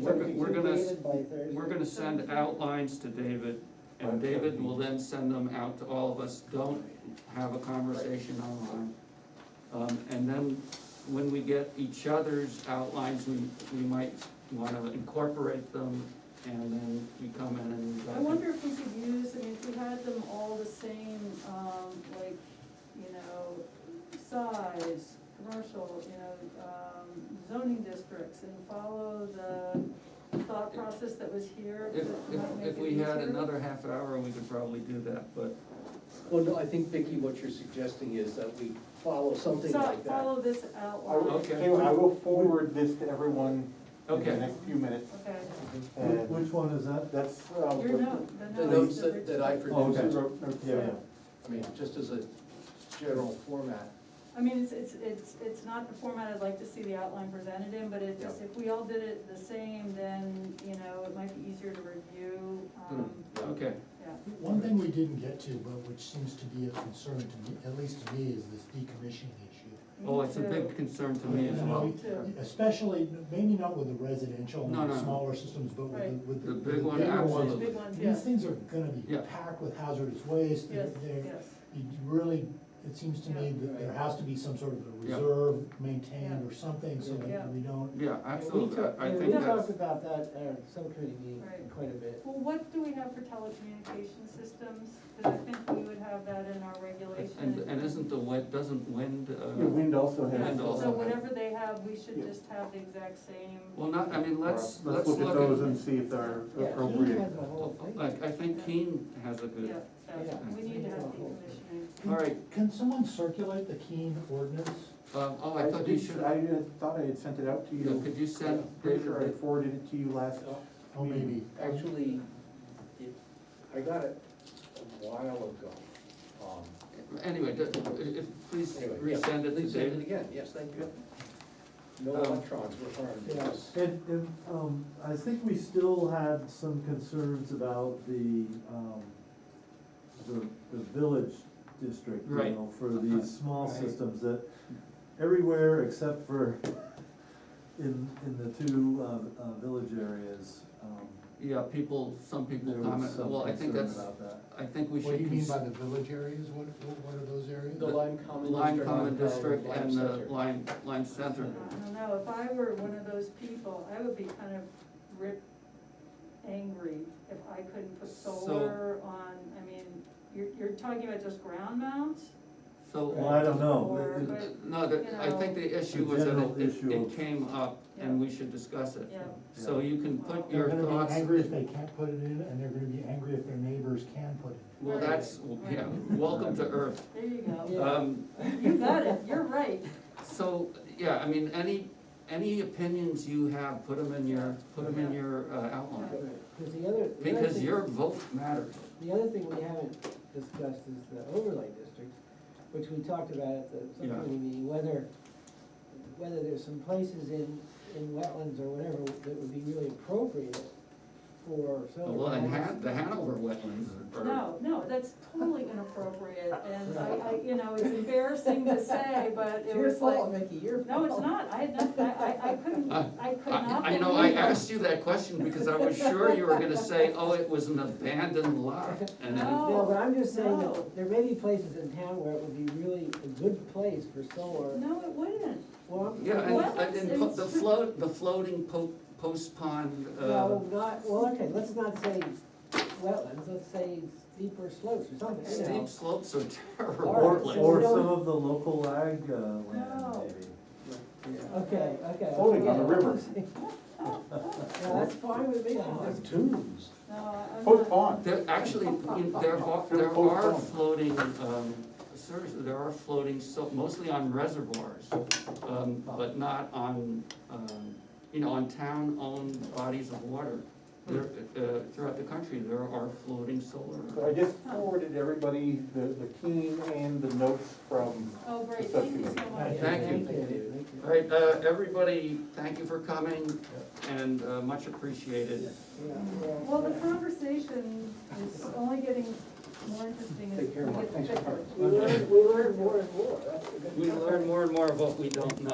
We're go- we're gonna s- Completed by Thursday. We're gonna send outlines to David, and David will then send them out to all of us, don't have a conversation online. Um, and then, when we get each other's outlines, we, we might wanna incorporate them, and then you come in and. I wonder if we could use, I mean, if we had them all the same, um, like, you know, size, commercial, you know, um, zoning districts and follow the thought process that was here. If, that if, might make if it we had easier. another half hour, we could probably do that, but, Well, no, I think, Vicky, what you're suggesting is that we follow something So, like that. Follow this I will, outline, Okay. tell you what, I will forward this to everyone in the okay. next few minutes. okay, And Which one is that? that's, uh, your what- note, the notes. The notes Rich- that, that I Oh, produced, okay. Yeah, yeah. I mean, just as a general format. I mean, it's, it's, it's, it's not the format I'd like to see the outline presented in, but it just, if we all did it the same, then, you know, it might be easier to review, Hmm. um, Okay, yeah. One thing we didn't get to, but which seems to be a concern to me, at least to me, is this decommissioning issue. oh, it's a Me too. big concern to me as well. Me too. Especially, maybe not with the residential No, no, and no. the smaller systems, but with Right. the, with the. The with big one, bigger ones. absolutely. Big ones, yeah, These things are gonna be Yeah. packed with hazardous waste, yes, they're, they're- yes, you really, it seems to me Yeah. that there has to be some sort of a Yeah. reserve maintained Yeah. or something, so Yeah. that we don't. Yeah, Yeah, we absolutely, talked- I- I yeah, think We that's, talked about that at our subcommittee meeting Right. quite a bit. well, what do we have for telecommunication systems? Cause I think we would have that in our regulation. and, and isn't the wind, doesn't wind, Yeah, uh? Wind also Yeah, has. and also- So whatever they have, we should Yeah. just have the exact same, Well, not, I mean, let's, let's Oh, Let's look at those and see if they're Yeah, he appropriate. has the whole thing. Like, I think Keene has a yeah, good, so Yeah. we need to have decommissioning. Can- All right. Can someone circulate the Keene ordinance? um, oh, I thought you did- should, I uh, thought I had sent it out to you know, you. could you send Pretty sure I David, forwarded it to you last. Oh, maybe. Actually, it, I got it a while ago. Um, the- anyway, d- if, please Anyway, yeah, resend it to please send it David. again, yes, thank you. No Um, electrons were harmed. Yes. And, and, um, I think we still had some concerns about the, um, the, the village district, you Right. know, for these small Right. systems that everywhere except for in, in the two, uh, uh, village areas, um, Yeah, people, some people there was comment, some well, I think concern that's, about that. I think we should. What do you mean by cons- the village areas? What, what are those areas? The Lime Common District. Lime Common District Lime and the Center. Lime, Lime Center. I don't know, if I were one of those people, I would be kind of rip angry if I couldn't put So- solar on, I mean, you're, you're talking about just ground mounts? Well, So, I don't know, Or- It- it- but- no, the- I think the issue was that general it- it, issue it of- came up and we should discuss it. Yeah, So you can put They're your gonna thoughts. be angry if they can't put it in, and they're gonna be angry if their neighbors can put it Well, that's, yeah, welcome to Earth. there you go, Yeah. Um, you got it, you're right, So, yeah, I mean, any, any opinions you have, put them in your, put 'em in Yeah. your uh, outline, Because the other. the other because thing- your vote matters. The other thing we haven't discussed is the overlay district, which we talked about at the Yeah. subcommittee meeting, whether, whether there's some places in, in wetlands or whatever that would be really appropriate for solar. Well, and panels. Han, the Hanover wetlands are. no, no, that's totally inappropriate, and I, I, you know, it's embarrassing to say, but It's it your was like, fault, Mickey, your fault. no, it's not, I had nothing, I, I, I couldn't, I could not. Uh, I, I know, I believe it. asked you that question because I was sure you were gonna say, oh, it was an abandoned lot, and then, No. No, but I'm just saying No. that there may be places in town where it would be really a good place for solar. No, it wouldn't, Well, I'm- yeah, Well, and, and po- it's- the float, the floating po- post pond, uh, No, not, well, okay, let's not say wetlands, let's say steeper slopes or something, you know. steep slopes are Or, terrible. Alright, places. so- or some of the local ag, uh, land, No. maybe. Okay, okay. Floating on the river. Yeah, that's fine with me. I'm Oh, just- Tunes. no, I- Oh, I'm Pope not. on. There, actually, in- there are, there are floating, um, seriously, there are floating, so, mostly on reservoirs, um, but not on, um, you know, on town-owned bodies of water. There, uh, throughout the country, there are floating So I solar. just forwarded everybody the, the keen and the notes from, Oh, great, thank you so much. Thank you. Thank you. All right, uh, everybody, thank you for coming, and, uh, much appreciated. Yeah, yeah. Well, the conversation is only getting more interesting as Take care, Mark. it gets Thanks, bigger. Mark. We learn, we learn more and more, that's the good We part. learn more and more of what we don't know.